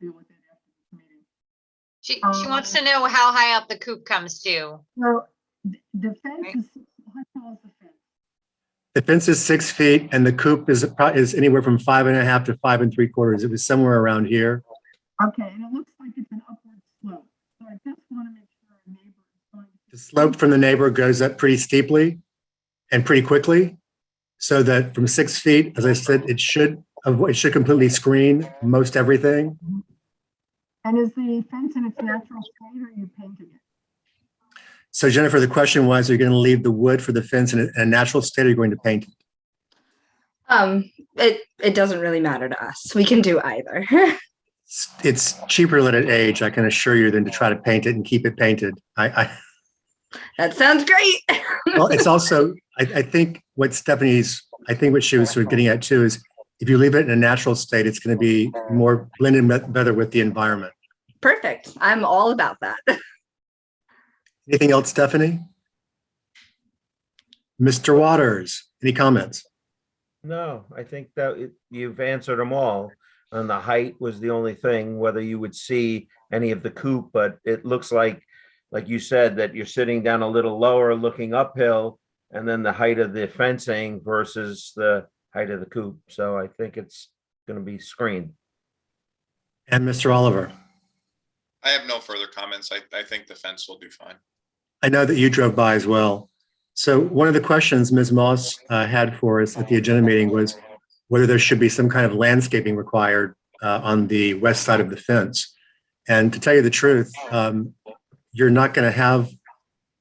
deal with that after this meeting. She, she wants to know how high up the coop comes to. So th- the fence Right. is, how tall is the fence? The fence is six feet and the coop is, pro- is anywhere from five and a half to five and three quarters. It was somewhere around here. Okay, and it looks like it's an upward slope, so I just want to make sure our neighbor is going to. The slope from the neighbor goes up pretty steeply and pretty quickly. So that from six feet, as I said, it should, avo- it should completely screen most everything. And is the fence in its natural state or are you painting it? So Jennifer, the question was, are you going to leave the wood for the fence in a, in a natural state or are you going to paint? it? Um, it it doesn't really matter to us. We can do either. It's- It's cheaper to let it age, I can assure you, than to try to paint it and keep it painted. I, I, that sounds great. Well, it's also, I, I think what Stephanie's, I think what she was sort of getting at too is if you leave it in a natural state, it's going to be more blended be- better with the environment. Perfect. I'm all about that. Anything else, Stephanie? Mr. Waters, any comments? No, I think that it- you've answered them all. And the height was the only thing, whether you would see any of the coop, but it looks like, like you said, that you're sitting down a little lower, looking uphill, and then the height of the fencing versus the height of the coop. So I think it's going to be screened. And Mr. Oliver, I have no further comments. I, I think the fence will do fine. I know that you drove by as well. So one of the questions Ms. Moss uh, had for us at the agenda meeting was whether there should be some kind of landscaping required uh, on the west side of the fence. And to tell you the truth, um, you're not going to have,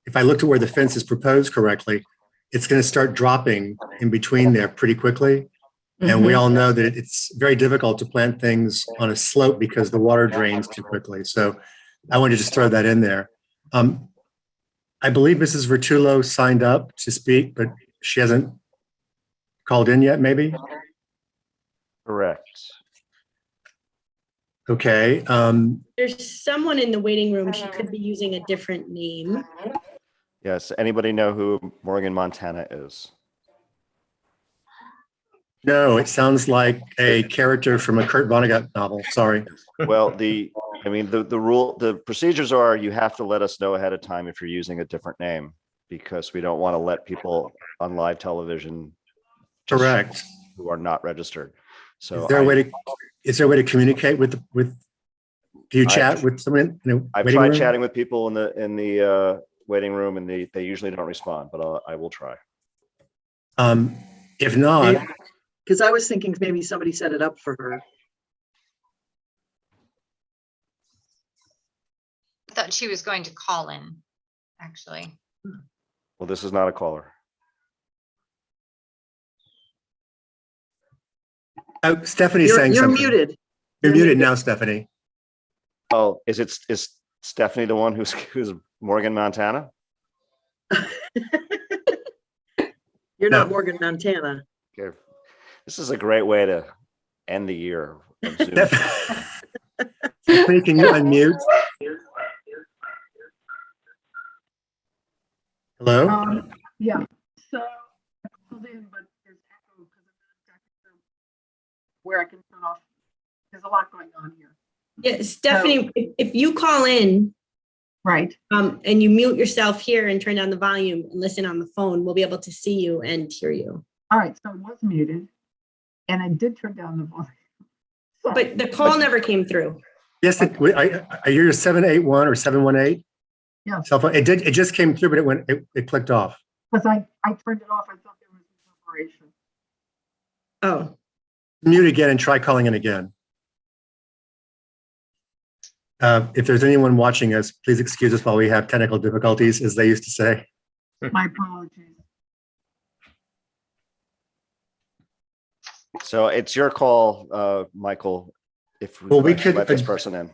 if I looked at where the fence is proposed correctly, it's going to start dropping in between there pretty quickly. And Mm-hmm. we all know that it's very difficult to plant things on a slope because the water drains too quickly. So I wanted to just throw that in there. Um, I believe Mrs. Vertulo signed up to speak, but she hasn't called in yet, maybe? Correct. Okay, um, There's someone in the waiting room. She could be using a different name. Yes. Anybody know who Morgan Montana is? no, it sounds like a character from a Kurt Vonnegut novel, sorry. Well, the, I mean, the, the rule, the procedures are you have to let us know ahead of time if you're using a different name because we don't want to let people on live television just Correct. who are not registered. So Is there a I- way to, is there a way to communicate with, with, do you I- chat with someone? in a I've waiting tried room? chatting with people in the, in the, uh, waiting room and they, they usually don't respond, but I'll- I will try. Um, if not, Because I was thinking maybe somebody set it up for her. I thought she was going to call in, actually. Well, this is not a caller. oh, Stephanie's You're saying you're something. muted. You're muted now, Stephanie. Oh, is it, is Stephanie the one who's, who's Morgan Montana? You're No. not Morgan Montana. Okay. This is a great way to end the year. of Zoom. Steph- Stephanie, can you unmute? Hello? Um, yeah, so I called in, but there's echo because I'm not exactly sure where I can turn off. There's a lot going on here. Yeah, Stephanie, if if you call in Right. um, and you mute yourself here and turn down the volume and listen on the phone, we'll be able to see you and hear you. All right, so it was muted and I did turn down the volume. Sorry. But the call never came through. Yes, it- we- I, I hear seven eight one or seven one eight. Yeah. Cell phone, it did, it just came through, but it went, it, it clicked off. Because I, I turned it off. I thought there was a separation. Oh, Mute again and try calling in again. Uh, if there's anyone watching us, please excuse us while we have technical difficulties, as they used to say. My apologies. So it's your call, uh, Michael, if. Well, would we like to could- Let this person in.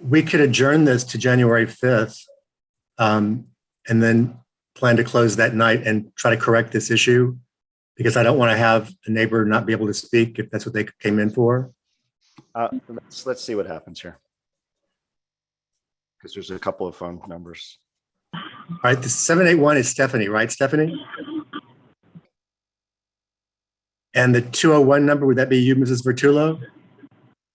We could adjourn this to January fifth. Um, and then plan to close that night and try to correct this issue. Because I don't want to have a neighbor not be able to speak if that's what they came in for. Uh, let's, let's see what happens here. Because there's a couple of phone numbers. All right, the seven eight one is Stephanie, right, Stephanie? And the two oh one number, would that be you, Mrs. Vertulo?